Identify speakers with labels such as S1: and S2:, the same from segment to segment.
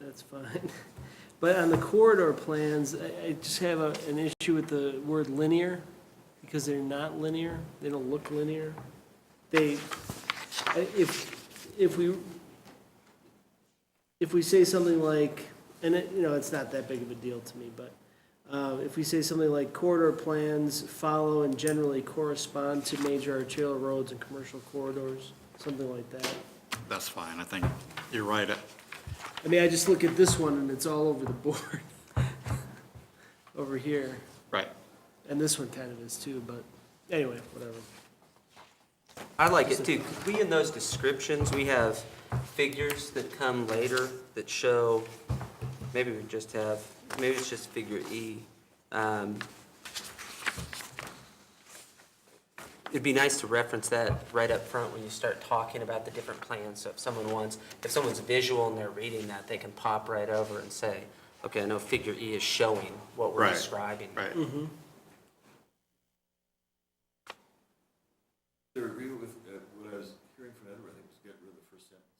S1: that's fine. But on the corridor plans, I, I just have a, an issue with the word linear, because they're not linear, they don't look linear. They, I- if, if we, if we say something like, and it, you know, it's not that big of a deal to me, but, uh, if we say something like corridor plans follow and generally correspond to major arterial roads and commercial corridors, something like that.
S2: That's fine, I think you're right. uh,
S1: I mean, I just look at this one and it's all over the board. Over here,
S2: Right.
S1: and this one kind of is too, but anyway, whatever.
S3: I like it too, 'cause we, in those descriptions, we have figures that come later that show, maybe we just have, maybe it's just figure E. Um, It'd be nice to reference that right up front when you start talking about the different plans, so if someone wants, if someone's visual and they're reading that, they can pop right over and say, okay, I know figure E is showing what we're
S2: Right,
S3: describing.
S2: Right.
S4: To agree with uh, what I was hearing from Edward, I think just get rid of the first sentence.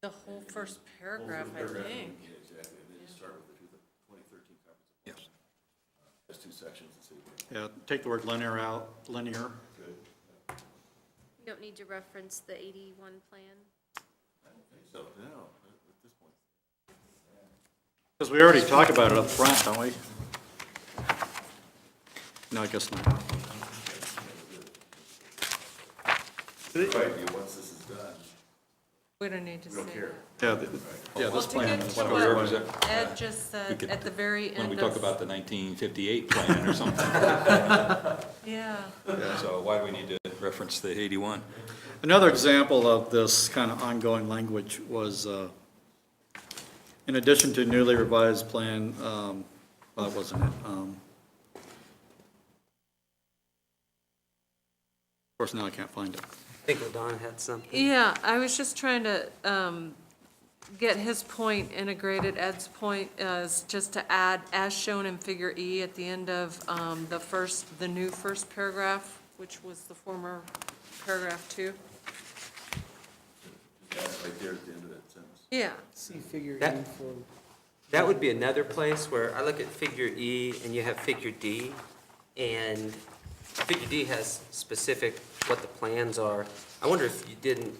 S5: The whole first paragraph, I think.
S4: Yeah, exactly, and then just start with the two- the 2013 comprehensive.
S2: Yes.
S4: There's two sections and see what
S2: Yeah, take the word linear out, linear.
S4: good.
S6: You don't need to reference the 81 plan?
S4: So, no, at this point.
S2: Because we already talked about it up front, don't we? No, I guess not.
S4: Right, yeah, once this is done,
S5: We don't need to
S4: we
S5: say
S4: don't care.
S5: that.
S2: Yeah, th- yeah,
S5: Well,
S2: this
S5: to
S2: plan
S5: get
S2: is
S5: to
S2: what we were.
S5: what Ed just said
S7: could-
S5: at the very
S7: when
S5: end
S7: we talk
S5: of,
S7: about the 1958 plan or something.
S5: yeah.
S7: So why do we need to reference the 81?
S2: Another example of this kind of ongoing language was, uh, in addition to newly revised plan, um, well, it wasn't it? um, Of course, now I can't find it.
S3: I think Ladonna had something.
S5: Yeah, I was just trying to um, get his point integrated, Ed's point uh, is just to add, as shown in figure E at the end of um, the first, the new first paragraph, which was the former paragraph two.
S4: That's right there at the end of that sentence.
S5: Yeah,
S1: See figure
S3: That-
S1: E for,
S3: That would be another place where I look at figure E and you have figure D, and figure D has specific what the plans are. I wonder if you didn't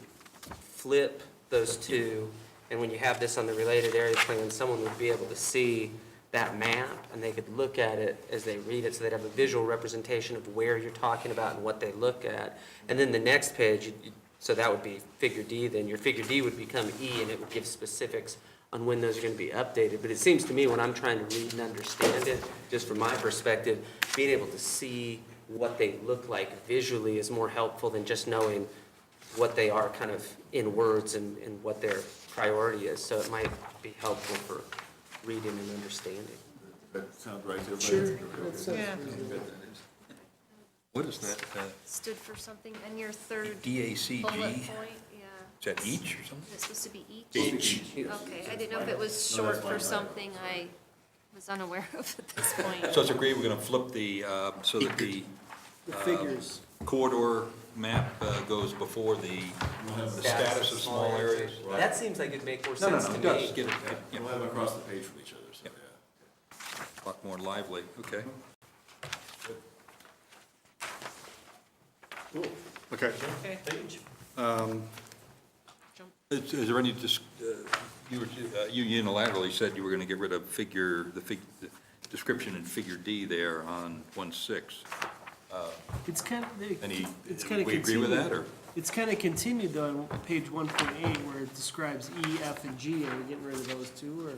S3: flip those two, and when you have this on the related area plan, someone would be able to see that map, and they could look at it as they read it, so they'd have a visual representation of where you're talking about and what they look at. And then the next page, you- you- so that would be figure D, then your figure D would become E, and it would give specifics on when those are gonna be updated. But it seems to me, when I'm trying to read and understand it, just from my perspective, being able to see what they look like visually is more helpful than just knowing what they are kind of in words and, and what their priority is. So it might be helpful for reading and understanding.
S4: That sounds right to everybody?
S1: sure,
S4: Okay.
S1: that sounds
S5: Yeah.
S1: reasonable.
S8: What is that, uh,
S6: Stood for something, and your third bullet
S8: DACG?
S6: point,
S8: E
S6: yeah.
S8: Is that E? each or something?
S6: Is it supposed to be each?
S8: Each.
S6: Okay, I didn't know if it was
S4: No, that's
S6: short
S4: fine.
S6: for something I was unaware of at this
S7: So
S6: point.
S7: it's agreed, we're going to flip the, uh, so that the
S1: the figures.
S7: corridor map uh, goes before the the status of small areas.
S3: That seems like it'd make more
S7: No, no,
S3: sense
S7: no,
S3: to
S7: it
S3: me.
S7: does, get it, yeah,
S4: We'll have them across the page from each other, so,
S7: Yep.
S4: yeah. Mm-hmm.
S7: a lot more lively, okay.
S2: Okay.
S5: okay,
S7: Is is there any, dis- uh, you were uh, you unilaterally said you were going to get rid of figure, the fig- the description in figure D there on 1-6.
S1: It's kind of, they-
S7: Any,
S1: it's kind of continued.
S7: we agree with that, or?
S1: It's kind of continued though on page one point eight where it describes E, F, and G. Are we getting rid of those two or?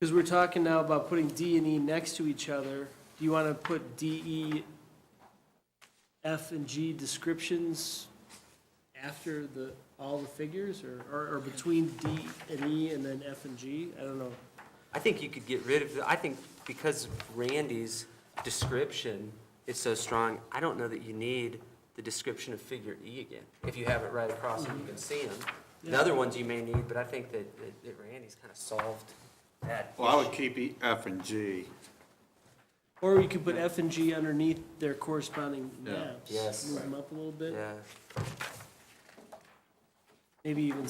S1: Because we're talking now about putting D and E next to each other. Do you want to put D, E, F, and G descriptions after the, all the figures or, or, or between D and E and then F and G? I don't know.
S3: I think you could get rid of, the- I think because Randy's description is so strong, I don't know that you need the description of figure E again. If you have it right across and you can see them. The other ones you may need, but I think that, that- that Randy's kind of solved that.
S2: Well, I would keep E, F, and G.
S1: Or we could put F and G underneath their corresponding maps.
S3: Yes.
S1: Move them up a little bit.
S3: Yeah.
S1: Maybe even